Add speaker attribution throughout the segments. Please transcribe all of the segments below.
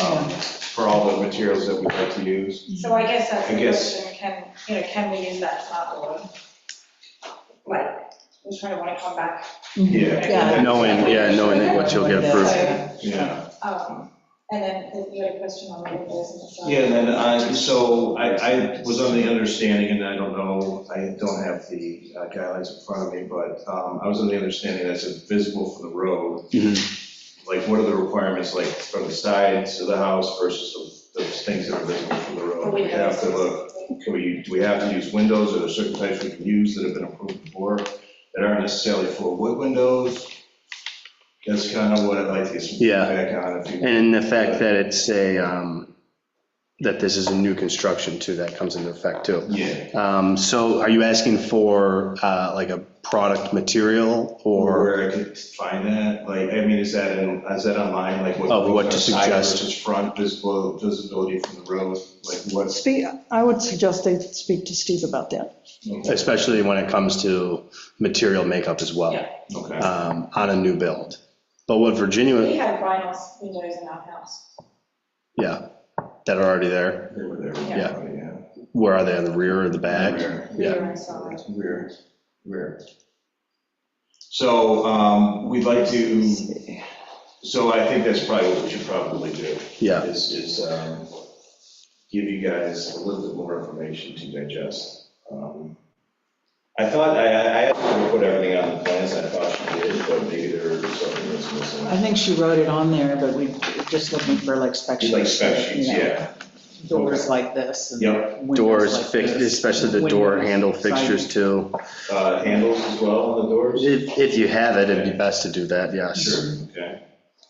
Speaker 1: um, all the materials that we like to use.
Speaker 2: So I guess that's
Speaker 1: I
Speaker 2: the
Speaker 1: guess-
Speaker 2: question, can, you know, can we use that flat wood? Like, I'm trying to want to come back.
Speaker 3: Mm-hmm.
Speaker 1: Yeah.
Speaker 2: Yeah.
Speaker 4: Knowing, yeah, knowing what you'll get approved.
Speaker 2: So,
Speaker 1: Yeah,
Speaker 2: um, and then you had a question on the windows and stuff.
Speaker 5: Yeah, and then I, so I, I was on the understanding, and I don't know, I don't have the uh, guidelines in front of me, but um, I was on the understanding that's visible from the road.
Speaker 4: Mm-hmm.
Speaker 5: Like, what are the requirements, like, from the sides of the house versus the the things that are visible from the road? We have to
Speaker 4: uh,
Speaker 5: look, can we, do we have to use windows, are there certain types we can use that have been approved before that aren't necessarily full wood windows? That's kind of what I'd like to get some
Speaker 4: Yeah.
Speaker 5: feedback on, if you.
Speaker 4: And the fact that it's a, um, that this is a new construction too, that comes into effect too.
Speaker 5: Yeah,
Speaker 4: Um, So are you asking for uh, like a product material
Speaker 5: or
Speaker 4: or,
Speaker 5: where I could find that, like, I mean, is that in, is that online, like?
Speaker 4: Of what to
Speaker 5: side
Speaker 4: suggest.
Speaker 5: Versus front visible, visibility from the road, like what's?
Speaker 3: Speak, I would suggest they speak to Steve about that.
Speaker 5: Okay.
Speaker 4: especially when it comes to material makeup as well,
Speaker 2: Yeah.
Speaker 4: um, on a new build? But what
Speaker 2: We
Speaker 4: Virginia,
Speaker 2: had vinyl windows in our house.
Speaker 4: yeah, that are already there,
Speaker 5: They were there.
Speaker 2: Yeah.
Speaker 5: Yeah.
Speaker 4: where are they, on the rear or the back?
Speaker 5: Rear.
Speaker 2: We
Speaker 4: Yeah.
Speaker 2: were inside.
Speaker 5: Rear, rear. So, um, we'd like to, so I think that's probably what we should probably do.
Speaker 4: Yeah,
Speaker 5: is, is um, give you guys a little bit more information to digest. Um, I thought, I, I I actually put everything on the plans, I thought she did, but maybe there was something that's
Speaker 3: I
Speaker 5: missing.
Speaker 3: think she wrote it on there, but we, we're just looking for like spec sheets.
Speaker 5: Like spec sheets,
Speaker 3: you know,
Speaker 5: yeah,
Speaker 3: Doors like this. and
Speaker 5: Yep.
Speaker 3: windows
Speaker 4: doors,
Speaker 3: like
Speaker 4: fix-
Speaker 3: this.
Speaker 4: especially the door
Speaker 3: Windows,
Speaker 4: handle
Speaker 3: siding.
Speaker 4: fixtures too.
Speaker 5: Uh, handles as well on the doors?
Speaker 4: If, if you have it, it'd be best to do that, yes.
Speaker 5: Sure, okay,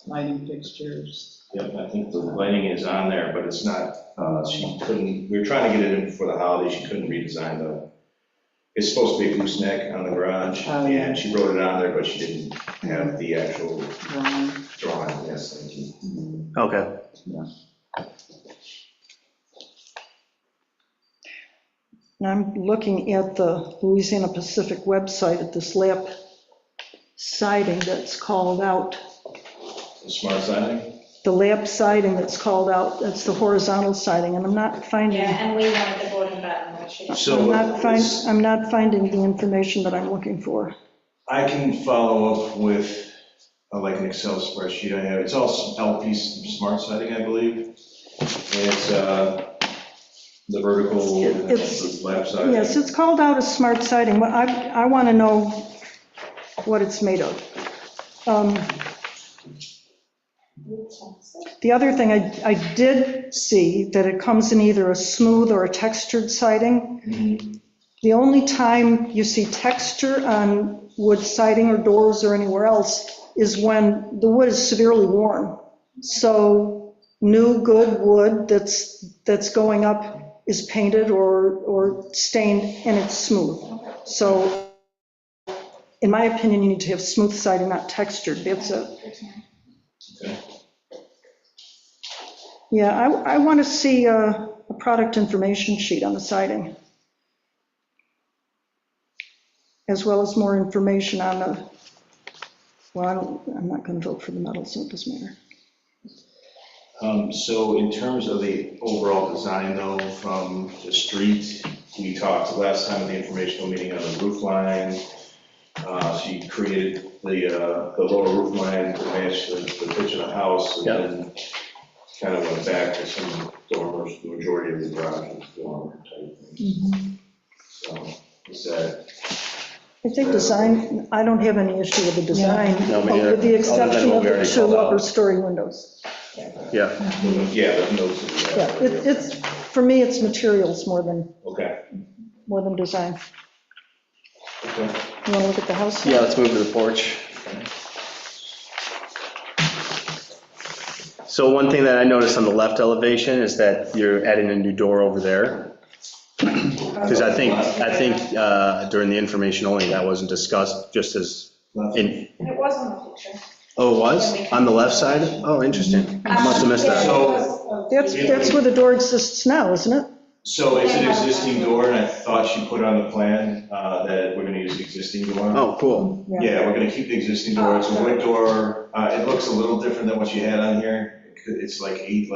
Speaker 3: Lighting fixtures.
Speaker 5: yep, I think the lighting is on there, but it's not, uh, she couldn't, we were trying to get it in before the holiday, she couldn't redesign the, it's supposed to be a gooseneck on the garage,
Speaker 3: Oh, yeah.
Speaker 5: and she wrote it on there, but she didn't have the actual
Speaker 3: drawing.
Speaker 5: drawing, yes, thank you.
Speaker 4: Okay.
Speaker 3: And I'm looking at the Louisiana Pacific website at this lap siding that's called out.
Speaker 5: Smart siding?
Speaker 3: The lap siding that's called out, that's the horizontal siding, and I'm not finding,
Speaker 2: Yeah, and we wanted the board and batten, which is.
Speaker 5: So-
Speaker 3: I'm not find, I'm not finding the information that I'm looking for.
Speaker 5: I can follow up with, uh, like, an Excel spreadsheet I have. It's all s- LP smart siding, I believe. And it's uh, the vertical, and
Speaker 3: It's-
Speaker 5: the lap siding.
Speaker 3: Yes, it's called out as smart siding, but I, I want to know what it's made of. Um, The other thing, I, I did see that it comes in either a smooth or a textured siding.
Speaker 5: Mhm.
Speaker 3: The only time you see texture on wood siding or doors or anywhere else is when the wood is severely worn. So new good wood that's, that's going up is painted or, or stained and it's smooth. So in my opinion, you need to have smooth siding, not textured, that's it. Yeah, I, I want to see uh, a product information sheet on the siding, as well as more information on the, well, I don't- I'm not going to vote for the metal, so it doesn't matter.
Speaker 5: Um, So in terms of the overall design, though, from the street, we talked last time at the informational meeting on the roof line. Uh, She created the, uh, the lower roof line to match the the pitch of the house, and
Speaker 4: Yeah.
Speaker 5: then kind of went back to some dormers, the majority of the garage was dormer type thing.
Speaker 3: Mm-hmm.
Speaker 5: So, is that,
Speaker 3: I think design, I don't have any issue with the design,
Speaker 4: No, me neither.
Speaker 3: with the exception
Speaker 4: Other than what
Speaker 3: of
Speaker 4: we
Speaker 3: the
Speaker 4: already
Speaker 3: two
Speaker 4: called out.
Speaker 3: upper story windows.
Speaker 4: Yeah,
Speaker 5: yeah, the notes. of
Speaker 3: Yeah,
Speaker 5: that.
Speaker 3: it- it's, for me, it's materials more than,
Speaker 5: Okay,
Speaker 3: more than design.
Speaker 5: okay.
Speaker 3: You want to look at the house? now?
Speaker 4: yeah, let's move to the porch. So one thing that I noticed on the left elevation is that you're adding a new door over there. Because I think, I think uh, during the information only, that wasn't discussed, just as, in,
Speaker 2: It was on the picture.
Speaker 4: oh, it was? On the left side? Oh, interesting. I must have missed
Speaker 2: Yeah, it
Speaker 4: that.
Speaker 2: was.
Speaker 3: That's, that's where the door exists now, isn't it?
Speaker 5: So it's an existing door, and I thought she put on the plan uh, that we're gonna use the existing door.
Speaker 4: Oh, cool.
Speaker 5: Yeah, we're gonna keep the existing door, it's a wood door, Uh, it looks a little different than what you had on here, it's like eight